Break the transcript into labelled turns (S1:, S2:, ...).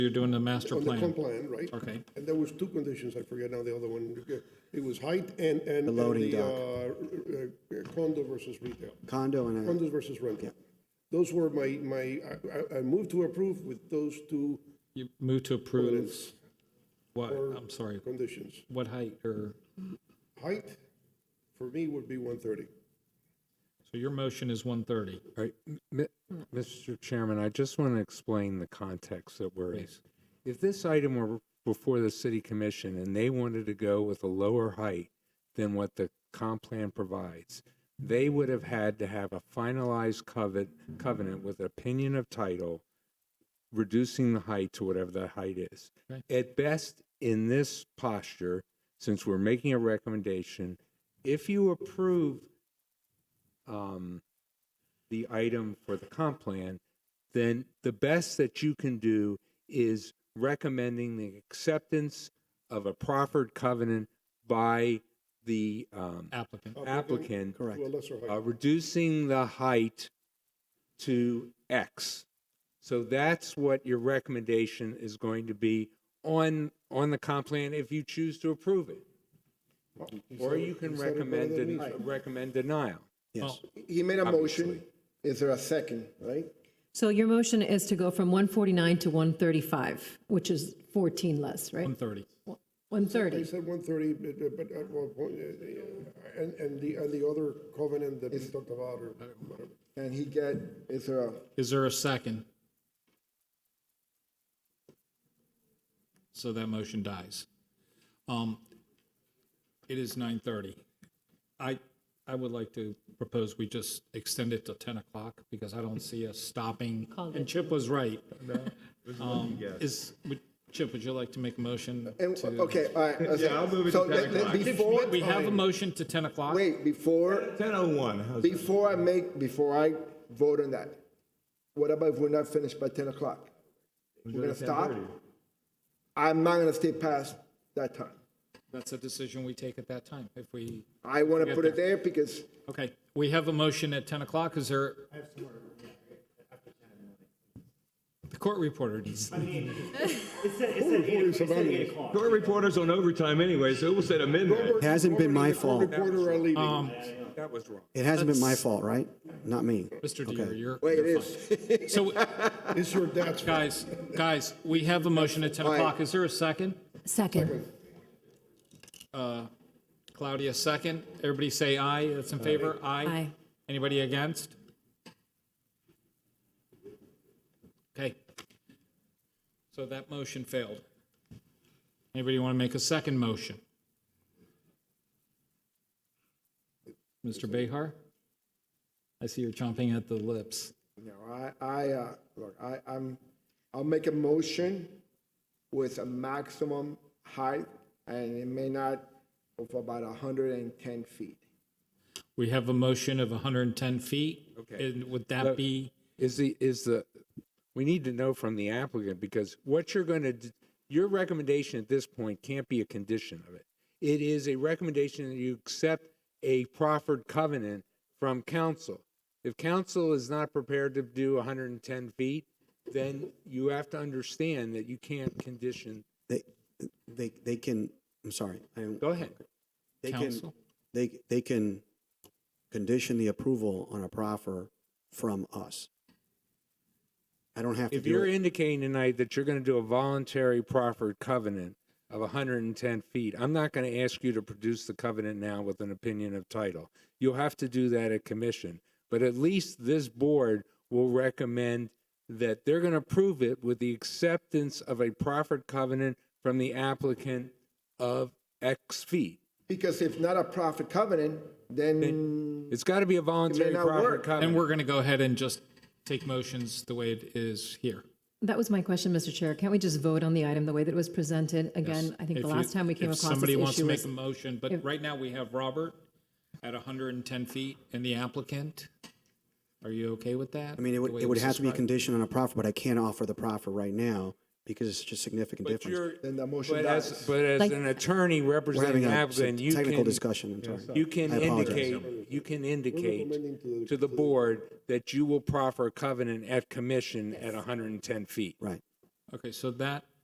S1: You're doing the master
S2: On the comp
S1: plan.
S2: plan, right?
S1: Okay.
S2: And there was two conditions, I forget now the other one. It was height and, and.
S3: The loading
S2: and the,
S3: dock.
S2: uh, uh, Condo versus retail,
S3: condo and a,
S2: condos versus rental. Those were my, my, I- I, I moved to approve with those two
S1: You move to approve
S2: covenants
S1: what, I'm sorry,
S2: conditions.
S1: what height or,
S2: Height, for me, would be one thirty.
S1: so your motion is 130.
S4: All right, M- m- Mr. Chairman, I just want to explain the context that we're in. If this item were before the city commission and they wanted to go with a lower height than what the comp plan provides, they would have had to have a finalized covet, covenant with opinion of title, reducing the height to whatever the height is.
S1: Right.
S4: At best, in this posture, since we're making a recommendation, if you approve um, the item for the comp plan, then the best that you can do is recommending the acceptance of a proffered covenant by the um,
S1: Applicant,
S4: applicant,
S3: correct.
S2: To a lesser
S4: uh,
S2: height.
S4: reducing the height to X. So that's what your recommendation is going to be on, on the comp plan if you choose to approve it.
S2: Uh,
S4: Or you can
S2: Instead of
S4: recommend,
S2: rather
S4: den-
S2: than me.
S4: recommend denial.
S3: yes.
S5: He made a motion. Is there a second, right?
S6: So your motion is to go from 149 to 135, which is 14 less, right?
S1: 130.
S2: I
S6: 130.
S2: said one thirty, but, but at one point, uh, and, and the, and the other covenant that we talked about or whatever.
S5: And he get, is there a,
S1: Is there a second? So that motion dies. Um, It is 9:30. I, I would like to propose we just extend it to 10 o'clock because I don't see us stopping. And Chip was right. Um, Is, would- Chip, would you like to make a motion?
S5: and, okay, all right. Yeah, I'll move it to Before,
S1: We have a motion to 10 o'clock?
S5: wait, before,
S7: Ten oh one, how's that?
S5: before I make, before I vote on that, what about if we're not finished by ten o'clock? We're gonna stop? I'm not gonna stay past that time.
S1: That's a decision we take at that time if we.
S5: I wanna put it there because
S1: Okay, we have a motion at 10 o'clock, is there? The court reporter needs,
S8: It said, it said, eight, it said eight o'clock.
S7: Court reporters on overtime anyway, so it was at a midnight.
S3: It hasn't been my
S2: Court
S3: fault.
S2: Reporter are leaving.
S4: That was wrong.
S3: It hasn't been my fault, right? Not me.
S1: Mr. Deere, you're.
S5: Wait, it
S1: you're
S5: is.
S1: fine. So,
S2: It's your dad's. fault.
S1: guys, guys, we have a motion at 10 o'clock, is there a second?
S6: Second.
S1: Claudia, second, everybody say aye, that's in favor, aye.
S6: Aye.
S1: Anybody against? Okay. So that motion failed. Anybody want to make a second motion? Mr. Behar? I see you're chomping at the lips.
S5: No, I, I, uh, look, I, I'm, I'll make a motion with a maximum height, and it may not, of about hundred and ten feet.
S1: We have a motion of 110 feet.
S4: Okay.
S1: And would that be,
S4: is the is the we need to know from the applicant because what you're going to your recommendation at this point can't be a condition of it it is a recommendation that you accept a proffered covenant from council if council is not prepared to do 110 feet then you have to understand that you can't condition
S3: They, they, they can, I'm sorry. I don't-
S4: go ahead
S3: They can,
S1: Counsel?
S3: they, they can condition the approval on a proffer from us. I don't have to
S4: if
S3: do
S4: you're
S3: it.
S4: indicating tonight that you're going to do a voluntary proffered covenant of 110 feet, I'm not going to ask you to produce the covenant now with an opinion of title. You'll have to do that at commission. But at least this board will recommend that they're going to approve it with the acceptance of a proffered covenant from the applicant of X feet.
S5: Because if not a profit covenant, then
S4: It's got to be a voluntary
S5: not
S4: proffered
S5: work.
S1: and
S4: covenant.
S1: we're going to go ahead and just take motions the way it is here.
S6: That was my question, Mr. Chair. Can't we just vote on the item the way that it was presented? Again, I think
S1: If
S6: the
S1: you-
S6: last time we came
S1: if
S6: across this
S1: Somebody wants to
S6: issue
S1: make
S6: was,
S1: a motion, but right now we have Robert at 110 feet and the applicant. Are you okay with that?
S3: I mean, it would, it would have to be conditioned on a proffer, but I can't offer the proffer right now because it's such a significant
S4: But
S3: difference.
S4: you're,
S5: then the motion
S4: but as,
S5: dies.
S4: but as
S6: Like-
S4: an attorney
S3: We're having
S4: representing the
S3: a
S4: applicant, you can.
S3: technical discussion, I'm sorry.
S4: You can
S3: I apologize.
S4: indicate, you can indicate to the board that you will proffer a covenant at commission at 110 feet.
S3: Right.
S1: Okay, so that